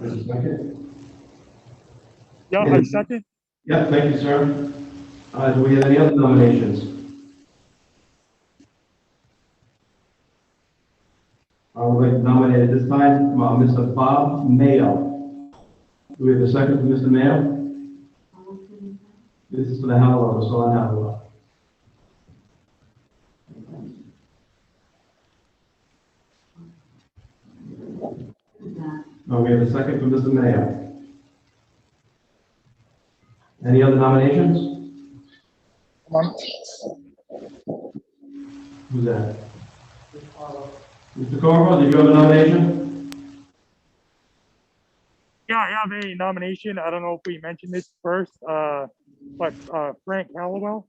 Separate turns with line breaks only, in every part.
There's a second?
Yeah, I second.
Yeah, thank you, sir. Uh, do we have any other nominations? I would like to nominate at this time, uh, Mr. Bob Mayo. Do we have a second for Mr. Mayo? This is for the Hallow, so on Hallow. Uh, we have a second for Mr. Mayo. Any other nominations? Who's that? Mr. Corvo, did you have a nomination?
Yeah, I have a nomination. I don't know if we mentioned this first, uh, but, uh, Frank Hallowell.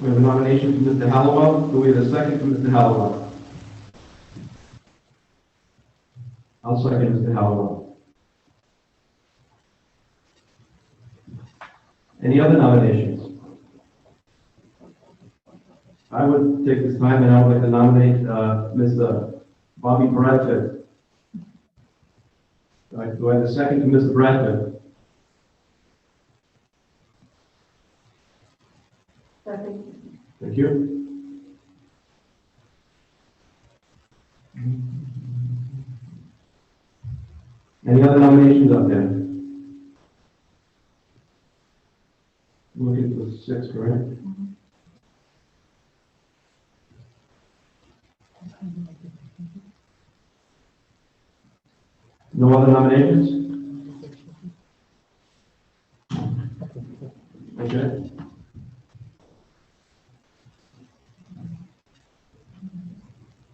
We have a nomination from Mr. Hallowell. Do we have a second from Mr. Hallowell? I'll second Mr. Hallowell. Any other nominations? I would take this time and I would like to nominate, uh, Mr. Bobby Bradford. Do I- Do I have a second to Mr. Bradford?
Second.
Thank you. Any other nominations out there? Looking for six, correct? No other nominations? Okay.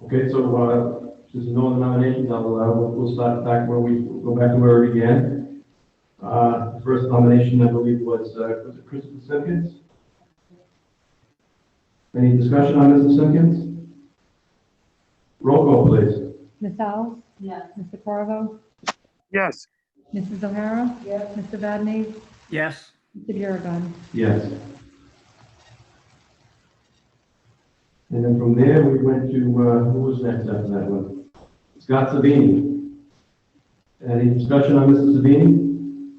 Okay, so, uh, since no other nominations, I'll, uh, we'll- we'll start back where we, go back to where we began. Uh, first nomination, I believe, was, uh, was it Christopher Simpkins? Any discussion on Mr. Simpkins? Roll call, please.
Ms. Alves?
Yes.
Mr. Corvo?
Yes,
Mrs. O'Hara?
Yes.
Mr. Vadney,
Yes,
Mr. Biragad.
Yes. And then from there, we went to, uh, who was next after that one? Scott Savini. Any discussion on Mr. Savini?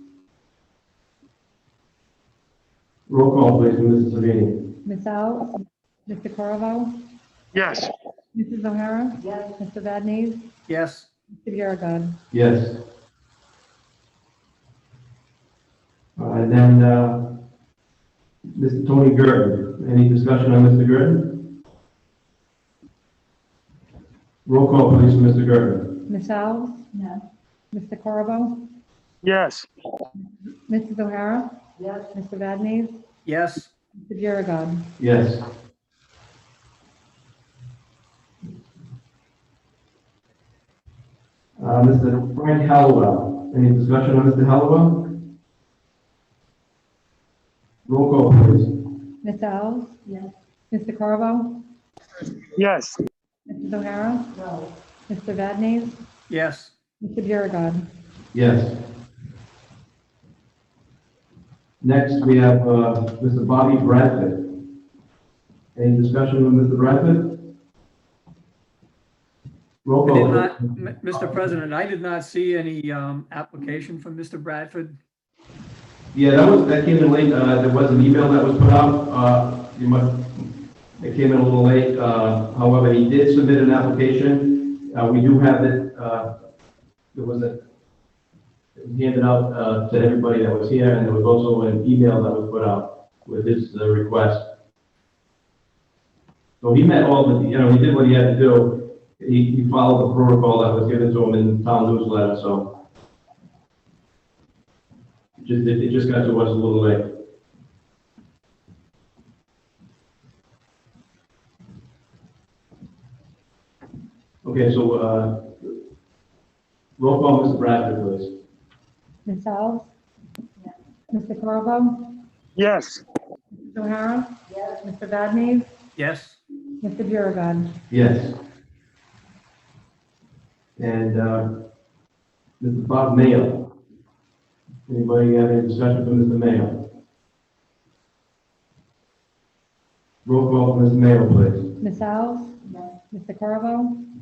Roll call, please, for Mrs. Savini.
Ms. Alves? Mr. Corvo?
yes,
Mrs. O'Hara?
Yes.
Mr. Vadney,
yes,
Mr. Biragad.
Yes. Uh, And then, uh, Mr. Tony Gerton. Any discussion on Mr. Gerton? Roll call, please, for Mr. Gerton.
Ms. Alves?
Yes.
Mr. Corvo?
yes,
Mrs. O'Hara?
Yes.
Mr. Vadney,
yes,
Mr. Biragad.
Yes. Uh, Mr. Frank Hallowell, any discussion on Mr. Hallowell? Roll call, please.
Ms. Alves?
Yes.
Mr. Corvo?
yes,
Mrs. O'Hara?
No.
Mr. Vadney,
yes,
Mr. Biragad.
Yes. Next, we have, uh, Mr. Bobby Bradford. Any discussion on Mr. Bradford? Roll
I did
call.
not,
please.
M- Mr. President, I did not see any um, application from Mr. Bradford.
Yeah, that was, that came in late, uh, there was an email that was put out, uh, you must, it came in a little late, uh, however, he did submit an application, uh, we do have it, uh, there was a, it was handed out, uh, to everybody that was here, and there was also an email that was put out with his, uh, request. So he met all the, you know, he did what he had to do, he, he followed the protocol that was given to him in the town newsletter, so, just, it it just got to us a little late. Okay, so, uh, roll call, Mr. Bradford, please.
Ms. Alves? Mr. Corvo?
yes,
Mrs. O'Hara?
Yes.
Mr. Vadney,
Yes,
Mr. Biragad.
Yes. And, uh, Mr. Bob Mayo. Anybody have any discussion for Mr. Mayo? Roll call, Mr. Mayo, please.
Ms. Alves?
Yes.
Mr. Corvo?